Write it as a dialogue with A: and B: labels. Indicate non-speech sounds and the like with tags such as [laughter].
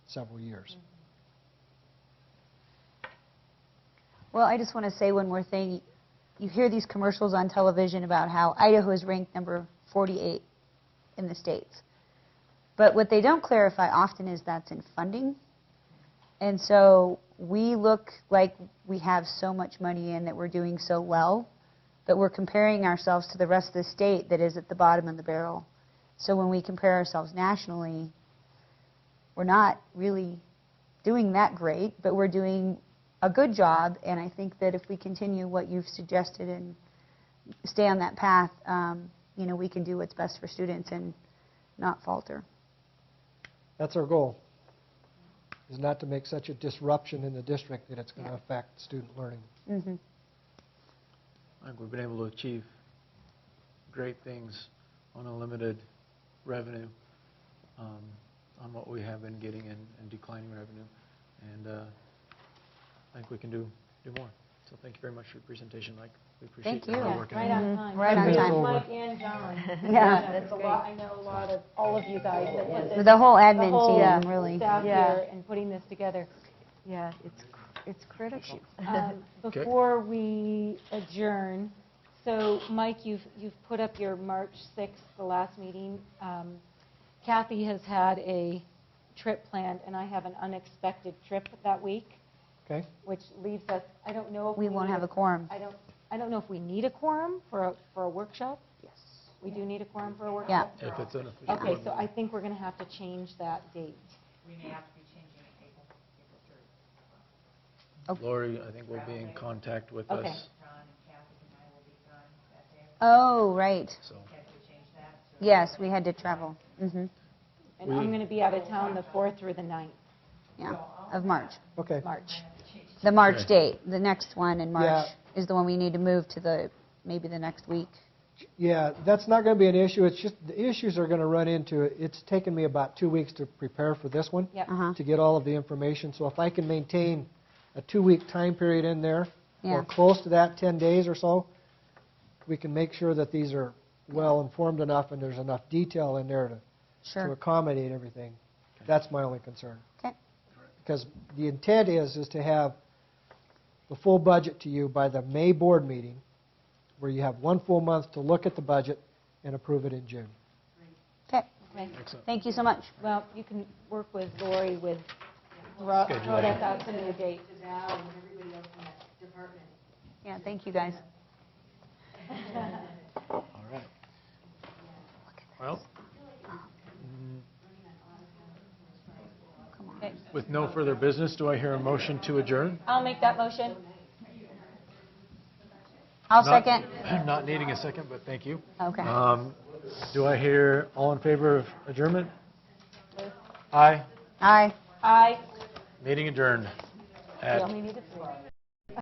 A: several years.
B: Well, I just want to say one more thing. You hear these commercials on television about how Idaho is ranked number 48 in the states. But what they don't clarify often is that's in funding. And so we look like we have so much money in that we're doing so well, but we're comparing ourselves to the rest of the state that is at the bottom of the barrel. So when we compare ourselves nationally, we're not really doing that great, but we're doing a good job. And I think that if we continue what you've suggested and stay on that path, um, you know, we can do what's best for students and not falter.
A: That's our goal, is not to make such a disruption in the district that it's going to affect student learning.
B: Mm-hmm.
C: I think we've been able to achieve great things on a limited revenue, um, on what we have been getting and and declining revenue. And uh, I think we can do, do more. So thank you very much for your presentation, Mike. We appreciate
B: Thank
C: your
B: you.
C: hard
B: Yeah, Mhm.
C: work. and effort.
D: Right on time.
B: Right on
D: Thank you,
A: time.
D: Mike and
B: [laughs]
D: John.
B: Yeah.
D: It's a lot, I know a lot of, all of you guys that put this.
B: The whole admin
D: the whole
B: team, really.
D: Staff
E: Yeah.
D: here and putting this
B: [laughs]
D: together.
E: Yeah, it's, cr- it's critical.
D: Um,
C: Okay.
D: Before we adjourn, so Mike, you've, you've put up your March 6th, the last meeting. Um, Kathy has had a trip planned, and I have an unexpected trip that week,
A: Okay?
D: which leaves us, I don't know if we.
B: We won't
D: need
B: have a quorum.
D: I don't, I don't know if we need a quorum for a, for a workshop. We do need a quorum for a workshop?
C: If it's an official
D: Okay,
C: board
D: so I
C: meeting.
D: think we're going to have to change that date.
F: we may have to be changing it April, April third.
C: Lori, I think will be in contact with
D: Okay.
C: us,
F: Ron and Kathy and I will be gone that day.
B: Oh, right.
C: so.
F: Have to change that to.
B: Yes, we had to travel. hmm
D: Mm-hmm. And I'm
C: We-
D: going to be out of town the 4th through the 9th,
B: Yeah, of March.
A: Okay.
D: March.
B: The March
C: Okay.
B: date, the next one in March
A: Yeah.
B: is the one we need to move to the, maybe the next week.
A: Yeah, that's not going to be an issue. It's just, the issues are going to run into it. It's taken me about two weeks to prepare for this one.
D: Yep.
B: Uh-huh.
A: To get all of the information. So if I can maintain a two-week time period in there,
B: Yeah.
A: or close to that, 10 days or so, we can make sure that these are well-informed enough and there's enough detail in there to to
B: Sure.
A: accommodate everything. That's my only concern.
B: Okay.
A: Because the intent is, is to have the full budget to you by the May board meeting, where you have one full month to look at the budget and approve it in June.
B: Okay.
D: Okay.
C: Excellent.
B: Thank you so much.
D: Well, you can work with Lori with, throw
C: Good.
D: throw us out some new [laughs] dates.
B: Yeah, thank you, guys.
C: All right. Well,
B: Come on.
D: Okay.
C: with no further business, do I hear a motion to adjourn?
D: I'll make that motion.
B: I'll
C: Not-
B: second.
C: Not [clears throat] needing a second, but thank you.
B: Okay.
C: Um, Do I hear all in favor of adjournment? Aye.
B: Aye.
D: Aye.
C: Meeting adjourned
D: We
C: at
D: only need a three.